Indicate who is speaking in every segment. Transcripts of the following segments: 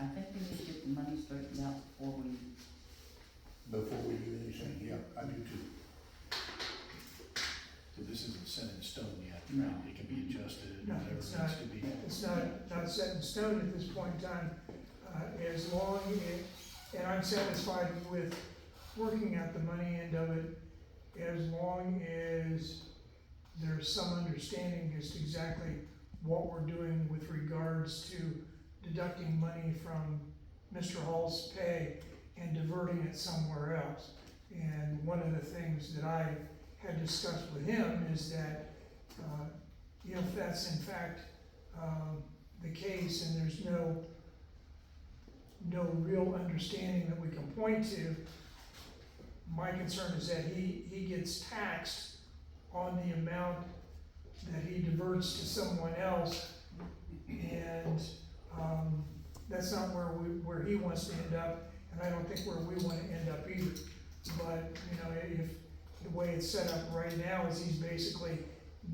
Speaker 1: I think we need to get the money straightened out before we,
Speaker 2: before we do anything, yeah, I do too.
Speaker 3: So this isn't set in stone yet,
Speaker 1: No.
Speaker 3: right? It can be adjusted,
Speaker 4: No,
Speaker 3: whatever
Speaker 4: it's
Speaker 3: needs
Speaker 4: not.
Speaker 3: to be.
Speaker 4: It's not, not set in stone at this point in time, uh, as long as, and I'm satisfied with working at the money end of it, as long as there's some understanding as to exactly what we're doing with regards to deducting money from Mr. Hall's pay and diverting it somewhere else. And one of the things that I had discussed with him is that, uh, if that's in fact um, the case and there's no, no real understanding that we can point to, my concern is that he, he gets taxed on the amount that he diverts to someone else. And, um, that's not where we, where he wants to end up, and I don't think where we wanna end up either. But, you know, if, the way it's set up right now is he's basically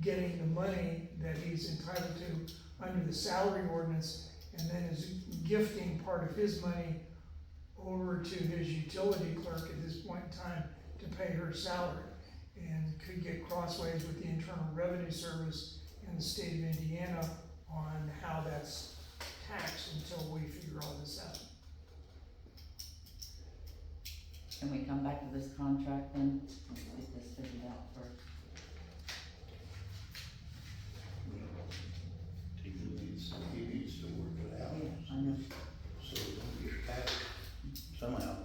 Speaker 4: getting the money that he's entitled to under the salary ordinance and then is gifting part of his money over to his utility clerk at this point in time to pay her salary. And could get crossways with the Internal Revenue Service in the state of Indiana on how that's taxed until we figure all this out.
Speaker 1: can we come back to this contract then? Let's get this figured out first.
Speaker 3: Take
Speaker 2: He
Speaker 3: the lead.
Speaker 2: needs, he needs to work it out,
Speaker 1: Yeah, I know.
Speaker 2: so it don't get taxed somehow.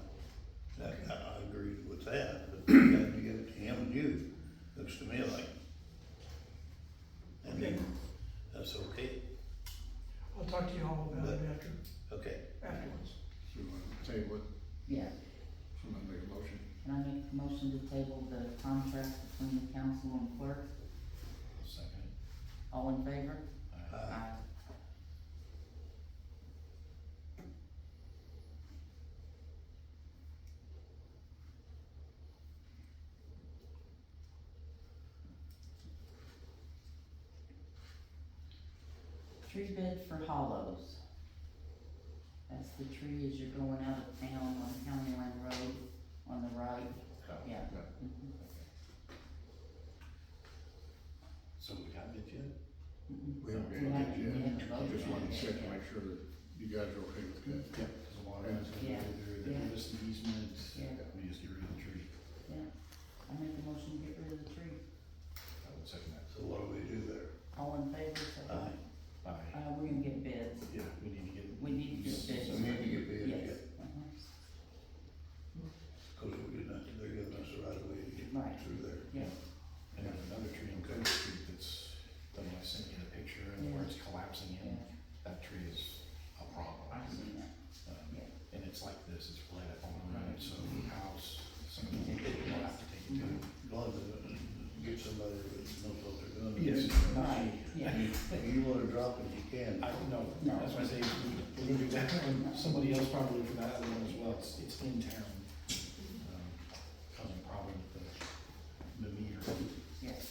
Speaker 2: That, I, I agree with that, but you have to give it to him and you, looks to me like. I mean, that's okay,
Speaker 4: I'll talk to you all about it after,
Speaker 2: okay.
Speaker 4: afterwards.
Speaker 5: So you want to table it,
Speaker 1: Yeah,
Speaker 5: someone make a motion?
Speaker 1: can I make a motion to table the contract between the council and clerk?
Speaker 3: Second.
Speaker 1: All in favor?
Speaker 3: Aye.
Speaker 2: Uh,
Speaker 1: Tree bid for hollows. That's the tree as you're going out of town on County Line Road on the right, yeah.
Speaker 5: uh,
Speaker 1: Mhm.
Speaker 3: So we got it yet?
Speaker 1: Mhm.
Speaker 5: We
Speaker 1: We
Speaker 5: haven't got it
Speaker 1: haven't- we
Speaker 5: yet.
Speaker 1: haven't voted
Speaker 5: Just wanted
Speaker 1: on
Speaker 5: to
Speaker 1: it
Speaker 5: check,
Speaker 1: yet.
Speaker 5: make sure that you guys are okay with that.
Speaker 3: Yeah, cause a lot of times they
Speaker 1: Yeah.
Speaker 3: do, they give us the easement,
Speaker 1: Yeah.
Speaker 3: we just get rid of the tree.
Speaker 1: I make a motion to get rid of the tree.
Speaker 3: I would second that.
Speaker 2: So what do we do there?
Speaker 1: All in favor, say aye.
Speaker 2: Aye.
Speaker 3: Aye.
Speaker 1: Uh, we're gonna get bids.
Speaker 3: Yeah, we need to get.
Speaker 1: We need to get bids.
Speaker 2: So maybe you get bid,
Speaker 1: Yes.
Speaker 2: yeah,
Speaker 1: Uh-huh.
Speaker 2: cause we're giving us, they're giving us the right of way to get
Speaker 1: Right.
Speaker 2: through there.
Speaker 3: And then another tree in Cook Street that's, the one I sent you the picture and where it's collapsing in,
Speaker 1: Yeah,
Speaker 3: that tree is a problem.
Speaker 1: I've seen that.
Speaker 3: Um,
Speaker 1: Yeah. Mm-hmm.
Speaker 3: And it's like this, it's right up on the road, so the house, some of the people will have to take it down.
Speaker 2: As long as it get somebody that knows what they're doing.
Speaker 1: Right, yeah.
Speaker 2: If you wanna drop it, you can.
Speaker 3: I don't know, that's why I say, we're gonna do that, and somebody else probably for that one as well, it's, it's in town. um, Causing a problem with the, the meter.
Speaker 1: Yes.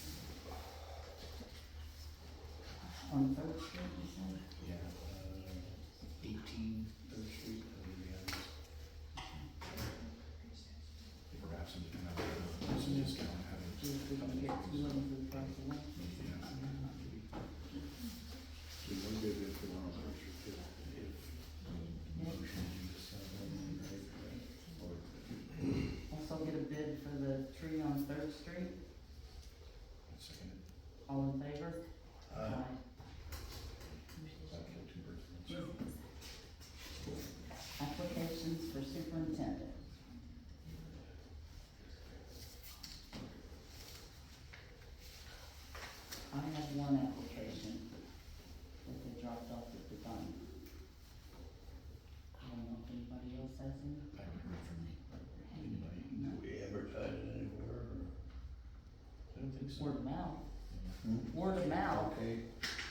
Speaker 1: On Third Street, you said?
Speaker 3: Yeah, uh, eighteen Third Street, I believe it is. If we're absent, you can have a- some discount, have it.
Speaker 1: See if we can get two of them for the price of one.
Speaker 3: Yeah.
Speaker 5: So you want to get it for one of those, you could.
Speaker 3: If motion to discuss uh, that, right, or.
Speaker 1: Also get a bid for the tree on Third Street,
Speaker 3: Second,
Speaker 1: all in favor?
Speaker 2: Uh,
Speaker 3: that killed two birds with one stone.
Speaker 1: Applications for superintendent. I have one application that they dropped off at the dump. I don't know if anybody else has any.
Speaker 3: I haven't heard from anybody.
Speaker 2: do we advertise it anywhere?
Speaker 3: I don't think so.
Speaker 1: Word of mouth,
Speaker 3: Yeah.
Speaker 2: or-
Speaker 1: word of mouth,
Speaker 2: Hmm? Okay, uh,